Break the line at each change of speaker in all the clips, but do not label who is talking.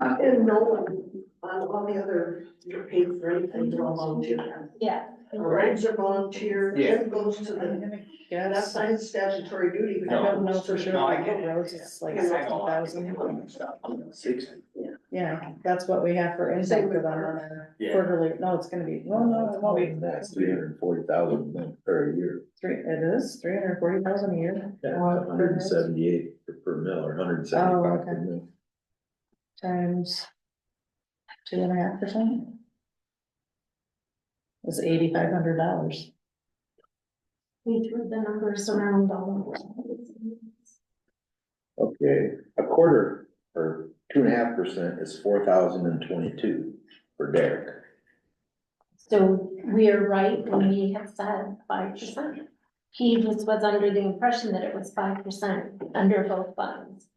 And no one, um, all the other, you're paid for anything, you're all volunteer.
Yeah.
Rides are volunteer,
Yeah.
it goes to the, and that's
Yes, I
not his statutory duty. but it
don't know
goes
for
to-
sure,
No, I
like
get it.
roads is like
Yeah.
sixty thousand.
Six.
Yeah, that's what we have for income
Same
for
with
them on
our-
our
Yeah.
quarterly, no, it's gonna be, well, no, it won't be.
That's three hundred and forty thousand per year,
Three, it is three hundred forty thousand a year. What,
hundred and seventy-eight per mil or hundred and
Oh,
seventy-five per
okay.
mil.
Times two and a half percent. Is eighty-five hundred dollars.
We threw the numbers around all
Okay, a quarter or two and a half percent is four thousand and twenty-two for Derek.
So we are right when we have said five percent. He just was under the impression that it was five percent under both funds.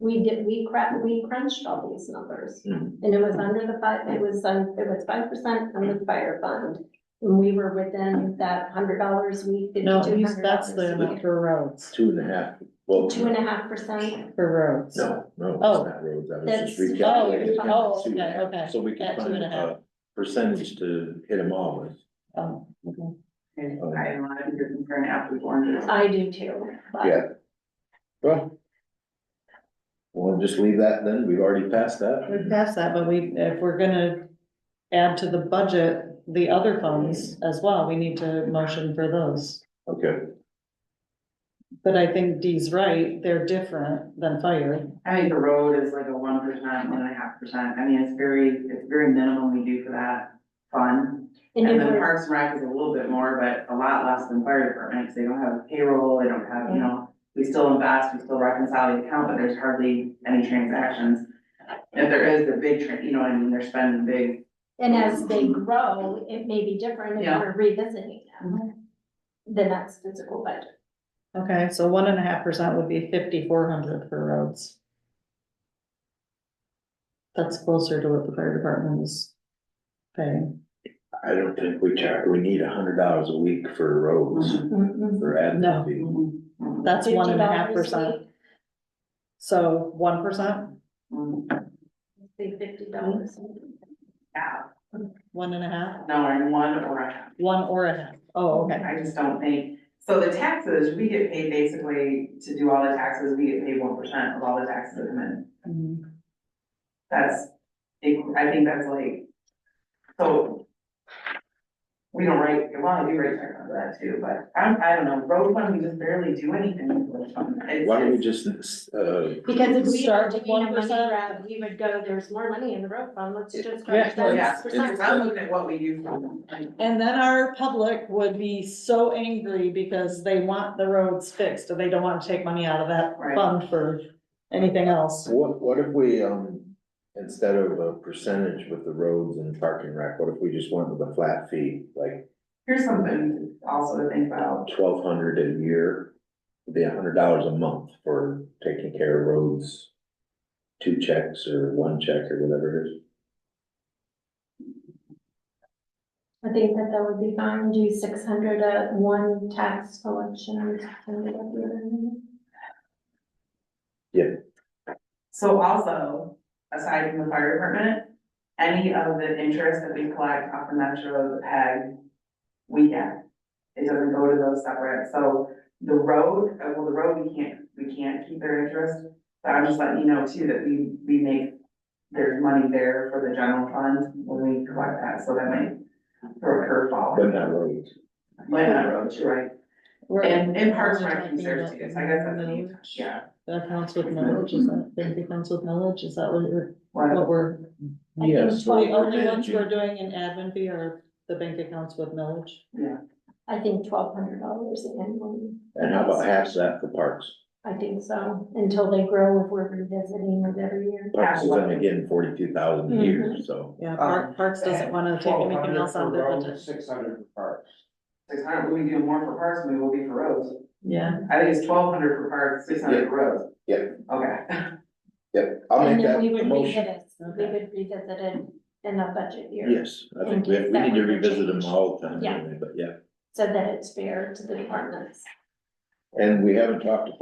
We did, we cra- we crunched all these numbers.
Mhm.
And it was under the five, it was, um, it was five percent on the fire fund. And we were within that hundred dollars week,
No,
fifty-two hundred
that's the amount
dollars.
for roads,
Two and a half, well.
Two and a half percent,
for roads.
No, no, it's
Oh.
not roads, I was just
That's-
recalculating.
oh,
Two and a
okay,
half.
okay.
So we can
At two
find
and a half.
a percentage to hit them all with.
Oh, okay.
And I don't know if you're comparing apples to oranges.
I do too. but-
Yeah. Well. We'll just leave that then, we've already passed that.
We passed that, but we, if we're gonna add to the budget, the other funds as well, we need to motion for those.
Okay,
But I think Dee's right, they're different than fire.
I think the road is like a one percent, one and a half percent. I mean, it's very, it's very minimum we do for that fund.
And
And
if
then
we're-
Parks and Rec is a little bit more, but a lot less than fire department, 'cause they don't have payroll, they don't have, you know, we still invest, we still reconcile the account, but there's hardly any transactions. If there is, the big, tran- you know, I mean, they're spending big,
And as they grow, it may be different if
Yeah.
we're revisiting them.
Mm-hmm.
The next physical budget.
Okay, so one and a half percent would be fifty-four hundred for roads. That's closer to what the fire department is paying.
I don't think we char, we need a hundred dollars a week for roads, for
No.
admin fee.
Mhm.
Mm-hmm. That's one and a half
$50
percent. So one percent,
Mhm.
Say fifty dollars.
Yeah,
one and a half,
no, I'm one or a half.
one or a half. Oh, okay.
I just don't think, so the taxes, we get paid basically to do all the taxes, we get paid one percent of all the taxes that come in.
Mhm.
That's, I think that's like, so. We don't write, well, we write checks on that too, but I, I don't know, road fund, we just barely do anything with road fund. It's-
Why don't we just, uh,
Because if we start
Start with
taking a money
1%.
grab, we would go, there's more money in the road fund, let's just
Yeah.
grab that
Yeah,
percent.
it's, I'm looking at what we do. for them, like,
And then our public would be so angry because they want the roads fixed, and they don't want to take money out of that
Right.
fund for anything else.
what, what if we, um, instead of a percentage with the roads and parking rack, what if we just went with a flat fee? Like
Here's something also to think about,
twelve hundred a year, would be a hundred dollars a month for taking care of roads. Two checks or one check or whatever it is.
I think that that would be fine, do six hundred at one tax collection. or something like that.
So also, aside from the fire department, any of the interest that we collect off the metro peg, we get. It doesn't go to those separate, so the road, uh, well, the road, we can't, we can't keep their interest. But I'm just letting you know too, that we, we make, there's money there for the general fund when we collect that, so that might throw a curveball.
But not roads.
But on the roads, you're right,
We're-
and, and parks and
we're
rec
talking
conserves
about
too, so I guess that's, a
mileage.
huge- yeah.
That counts with mileage, is that, that counts with mileage, is that what you're,
Well,
what we're?
I think
Yes,
The
Well, we're
only ones we're doing in admin fee are the bank accounts with mileage.
I think twelve hundred dollars annually,
And how about half that for parks?
I think so, until they grow, if we're revisiting it every year.
Parks is only getting forty-two thousand a year,
Mm-hmm.
so.
Yeah, Park, Parks doesn't wanna take anything else out of their budget.
Six hundred for
six hundred, we do more for parks than we will be for roads.
Yeah,
I think it's twelve hundred for parks, six hundred for roads.
Yep.
Okay,
Yep, I'll
And
make
then
that
we would
motion.
revisit, we would revisit it in a budget year,
Yes, I think we,
In
we
case that
need to
were to
revisit them
change.
all the time
Yeah.
anyway, but yeah.
so that it's fair to the departments.
And we haven't talked to